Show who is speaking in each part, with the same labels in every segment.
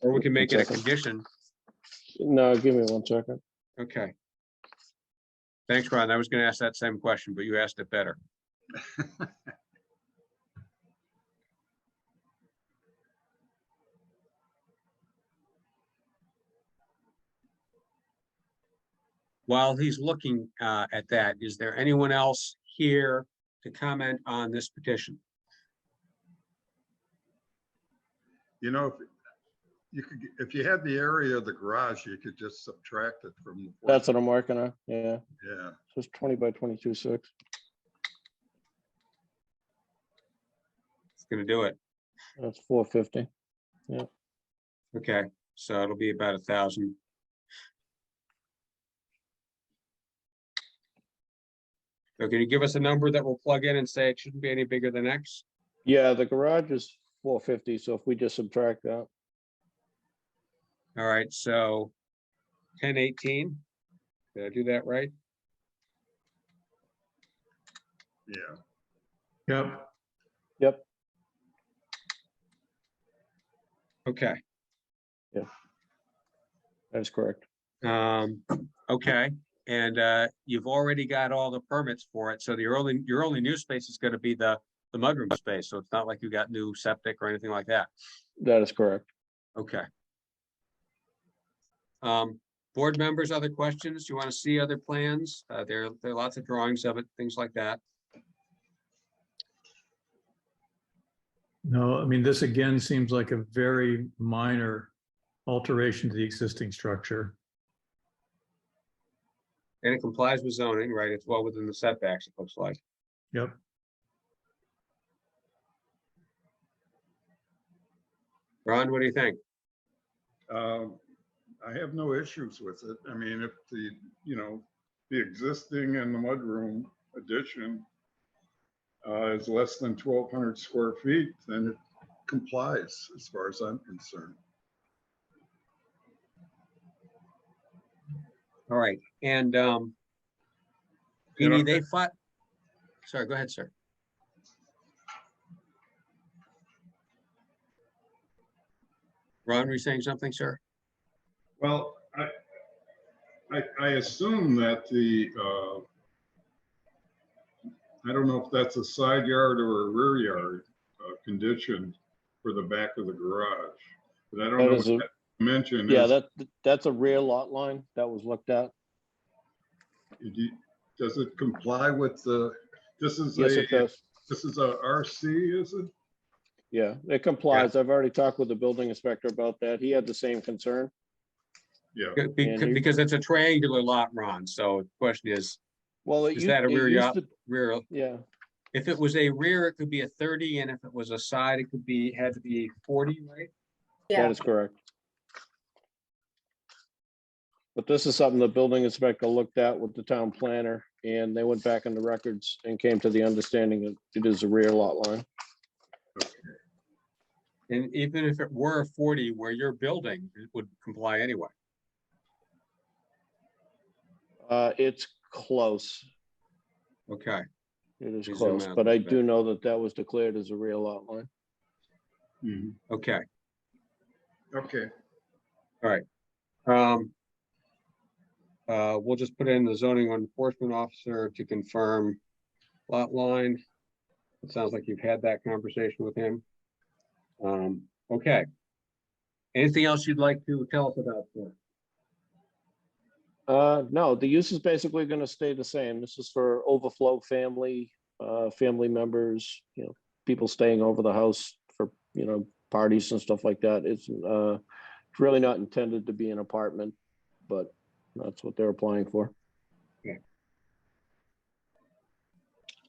Speaker 1: Or we can make it a
Speaker 2: Exactly.
Speaker 1: condition.
Speaker 2: No, give me one second.
Speaker 1: Okay. Thanks, Ron. I was gonna ask that same question, but you asked it better. While he's looking uh, at that, is there anyone else here to comment on this petition?
Speaker 3: You know, if you could, if you had the area of the garage, you could just subtract it from. the four-
Speaker 2: That's what I'm working on. Yeah,
Speaker 3: Yeah,
Speaker 2: so it's twenty by twenty-two six.
Speaker 1: It's gonna do it.
Speaker 2: That's four fifty.
Speaker 1: Okay, so it'll be about a thousand. So can you give us a number that we'll plug in and say it shouldn't be any bigger than X?
Speaker 2: Yeah, the garage is four fifty, so if we just subtract that,
Speaker 1: All right, so ten eighteen. Did I do that right?
Speaker 3: yeah.
Speaker 4: Yep,
Speaker 1: Okay,
Speaker 2: that is correct.
Speaker 1: um, okay, and uh, you've already got all the permits for it, so your only, your only new space is gonna be the, the mudroom space, so it's not like you got new septic or anything like that.
Speaker 2: That is correct.
Speaker 1: Okay. Um, board members, other questions? You want to see other plans? Uh, there, there are lots of drawings of it, things like that.
Speaker 4: no, I mean, this again seems like a very minor alteration to the existing structure.
Speaker 1: And it complies with zoning, right? It's well within the setbacks, it looks like.
Speaker 4: Yep,
Speaker 1: Ron, what do you think?
Speaker 3: Um, I have no issues with it. I mean, if the, you know, the existing and the mudroom addition uh, is less than twelve hundred square feet, then it complies as far as I'm concerned.
Speaker 1: All right, and, um,
Speaker 3: You know-
Speaker 1: Jeannie, they fought, sorry, go ahead, sir. Ron, were you saying something, sir?
Speaker 3: Well, I, I, I assume that the, uh, I don't know if that's a side yard or a rear yard, uh, condition for the back of the garage. But I don't
Speaker 2: That
Speaker 3: know what
Speaker 2: is a-
Speaker 3: that dimension
Speaker 2: Yeah,
Speaker 3: is.
Speaker 2: that, that's a rear lot line that was looked at.
Speaker 3: Do you- Does it comply with the, this is
Speaker 2: Yes, it
Speaker 3: a,
Speaker 2: does.
Speaker 3: this is a RC, is it?
Speaker 2: Yeah, it complies. I've already talked with the building inspector about that. He had the same concern.
Speaker 3: Yeah,
Speaker 1: Good, bec-
Speaker 2: Andrew?
Speaker 1: Because it's a triangular lot, Ron, so the question is
Speaker 2: Well, it
Speaker 1: Is
Speaker 2: used-
Speaker 1: that a
Speaker 2: it
Speaker 1: rear
Speaker 2: used
Speaker 1: yard?
Speaker 2: to-
Speaker 1: rear,
Speaker 2: Yeah,
Speaker 1: if it was a rear, it could be a thirty, and if it was a side, it could be, had to be forty, right?
Speaker 2: that
Speaker 5: Yeah,
Speaker 2: is correct. But this is something the building inspector looked at with the town planner and they went back in the records and came to the understanding that it is a rear lot line.
Speaker 1: And even if it were a forty where you're building, it would comply anyway.
Speaker 2: Uh, it's close.
Speaker 1: Okay,
Speaker 2: It
Speaker 1: Please
Speaker 2: is
Speaker 1: zoom
Speaker 2: close,
Speaker 1: out
Speaker 2: but
Speaker 1: a
Speaker 2: I
Speaker 1: bit.
Speaker 2: do know that that was declared as a rear lot line.
Speaker 3: Mhm.
Speaker 1: okay,
Speaker 3: okay.
Speaker 1: um. Uh, we'll just put in the zoning enforcement officer to confirm lot line. It sounds like you've had that conversation with him. Um, okay. Anything else you'd like to tell us about, sir?
Speaker 2: Uh, no, the use is basically gonna stay the same. This is for overflow family, uh, family members, you know, people staying over the house for, you know, parties and stuff like that. It's, uh, it's really not intended to be an apartment, but that's what they're applying for.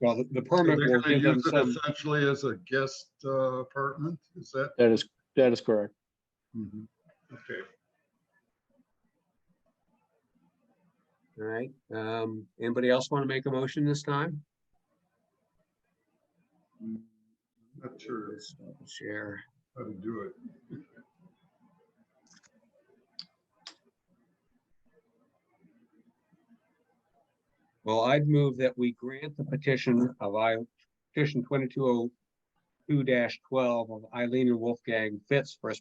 Speaker 1: Well, the- the
Speaker 3: So They're
Speaker 1: permit will
Speaker 3: gonna
Speaker 1: give them
Speaker 3: use it
Speaker 1: some,
Speaker 3: essentially as a guest uh, apartment, is that?
Speaker 2: That is, that is correct.
Speaker 3: Mhm. Okay.
Speaker 1: all right? Um, anybody else want to make a motion this time?
Speaker 3: Mm, Not sure
Speaker 1: Let's double Share.
Speaker 3: how to do it.
Speaker 1: Well, I'd move that we grant the petition of I, petition twenty-two oh two twelve of Eileen and Wolfgang Fitz for a